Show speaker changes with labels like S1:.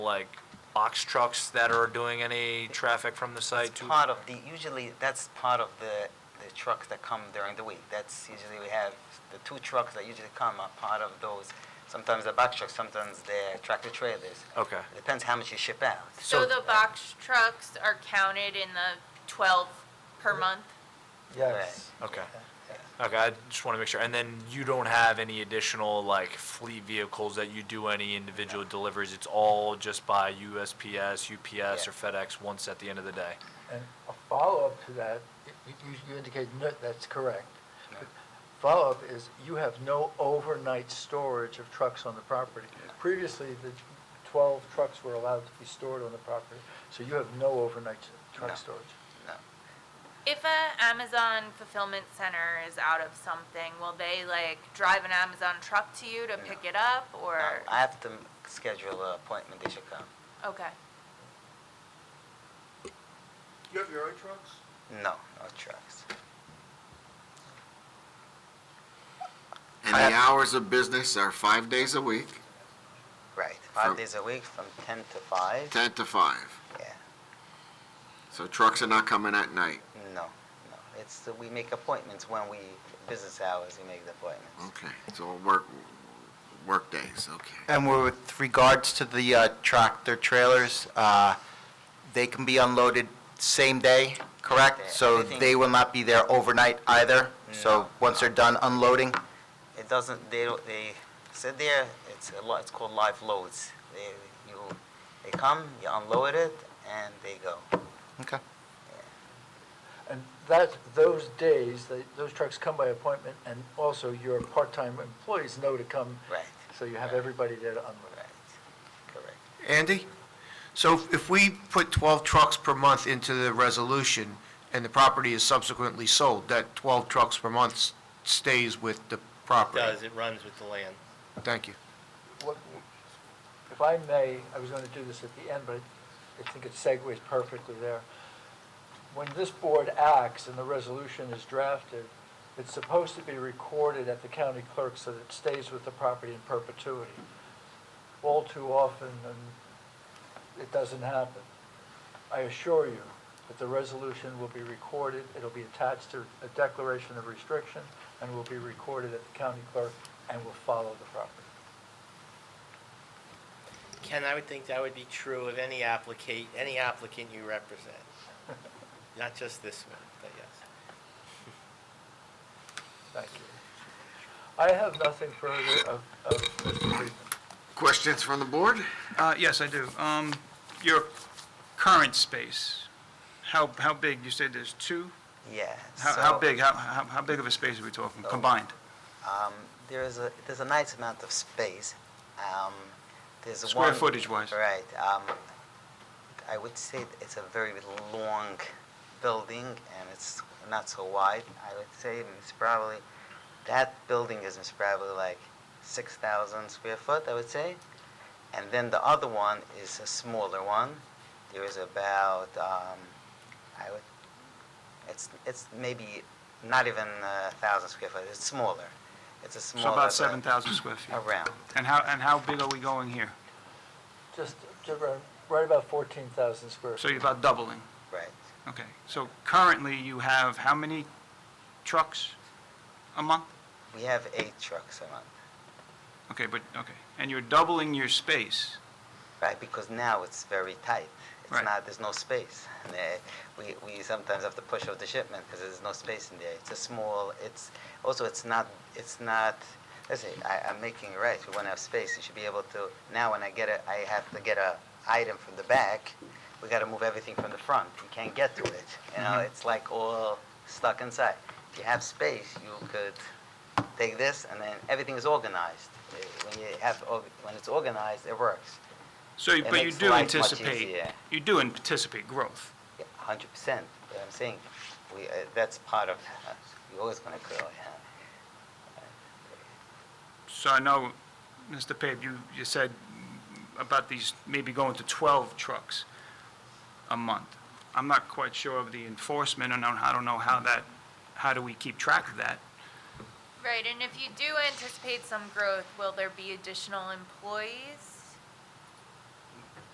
S1: like box trucks that are doing any traffic from the site
S2: It's
S1: to?
S2: part of the, usually that's part of the, the trucks that come during the week. That's usually we have, the two trucks that usually come are part of those. Sometimes the box trucks, sometimes they're tractor trailers.
S1: Okay,
S2: Depends how much you ship out.
S1: So-
S3: So the box trucks are counted in the twelve per month?
S4: Yes.
S1: okay. Okay, I just want to make sure. And then you don't have any additional like fleet vehicles that you do any individual deliveries? It's all just by USPS, UPS, or FedEx once at the end of the day?
S4: And a follow-up to that, you, you- you indicated, no, that's correct. But Follow-up is you have no overnight storage of trucks on the property. Previously, the 12 trucks were allowed to be stored on the property, so you have no overnight
S2: No.
S4: truck storage.
S2: No.
S3: If a Amazon fulfillment center is out of something, will they like drive an Amazon truck to you to
S2: No.
S3: pick it up
S2: No,
S3: or?
S2: I have to m- schedule an appointment, they should come.
S3: Okay,
S5: You have your own trucks?
S2: No, no trucks.
S6: And the hours of business are five days a week,
S2: Right, five
S6: From-
S2: days a week from ten to five,
S6: ten to five.
S2: yeah.
S6: So trucks are not coming at night.
S2: No, no, it's, we make appointments when we, business hours, we make the appointments.
S6: Okay, so work, work days, okay.
S7: And with regards to the uh, tractor trailers, uh, they can be unloaded same day,
S2: Same day.
S7: correct? So
S2: Anything-
S7: they will not be there overnight either?
S2: No,
S7: So once they're done unloading?
S2: It doesn't, they don't, they sit there, it's a lot, it's called live loads. They, you, they come, you unload it, and they go.
S7: Okay.
S4: And that, those days, they- those trucks come by appointment, and also your part-time employees know to come,
S2: Right,
S4: so you have everybody there to unload.
S2: right, correct.
S5: Andy? So if- if we put 12 trucks per month into the resolution and the property is subsequently sold, that 12 trucks per month s- stays with the property?
S8: Does, it runs with the land.
S5: Thank you.
S4: What- If I may, I was going to do this at the end, but I think it segues perfectly there. When this board acts and the resolution is drafted, it's supposed to be recorded at the county clerk so that it stays with the property in perpetuity. All too often, and it doesn't happen. I assure you that the resolution will be recorded, it'll be attached to a declaration of restriction, and will be recorded at the county clerk, and will follow the property.
S8: Ken, I would think that would be true of any applicant, any applicant you represent. Not just this one, but yes.
S4: Thank you. I have nothing further of, of Mr. Friedman.
S6: Questions from the board?
S9: Uh, Yes, I do. Um, Your current space, how, how big? You said there's two?
S2: Yeah,
S9: How,
S2: so,
S9: how big, how, how how big of a space are we talking,
S2: Oh.
S9: combined?
S2: Um, there is a, there's a nice amount of space. Um, there's
S9: Square
S2: one-
S9: footage-wise.
S2: Right, um, I would say it's a very long building, and it's not so wide. I would say it's probably, that building is probably like six thousand square foot, I would say. And then the other one is a smaller one. There is about, um, I would, it's, it's maybe not even a thousand square foot, it's smaller. It's a smaller.
S9: So about
S2: but
S9: 7,000 square feet.
S2: Around,
S9: And how, and how big are we going here?
S4: Just, just right- right about 14,000 square.
S9: So you're
S4: feet.
S9: about doubling.
S2: right.
S9: Okay. So currently, you have how many trucks a month?
S2: We have eight trucks a month,
S9: Okay, but, okay. And you're doubling your space.
S2: right? Because now it's very tight. It's
S9: Right.
S2: not, there's no space. And, uh, We, we sometimes have to push out the shipment because there's no space in there. It's a small, it's, also it's not, it's not, let's see, I, I'm making it right. We want to have space. You should be able to, now when I get a, I have to get a item from the back, we got to move everything from the front. You can't get to it. You know, it's like all stuck inside. If you have space, you could take this, and then everything is organized. Uh, When you have, org- when it's organized, it works,
S9: So, you-
S2: It
S9: but you
S2: makes
S9: do
S2: life much
S9: anticipate,
S2: easier.
S9: you do anticipate growth.
S2: Yeah, a hundred percent. But I'm saying, we, uh, that's part of, uh, you're always gonna grow, yeah.
S9: So I know, Mr. Pape, you, you said about these maybe going to 12 trucks a month. I'm not quite sure of the enforcement, and I don't- I don't know how that, how do we keep track of that?
S3: right, and if you do anticipate some growth, will there be additional employees?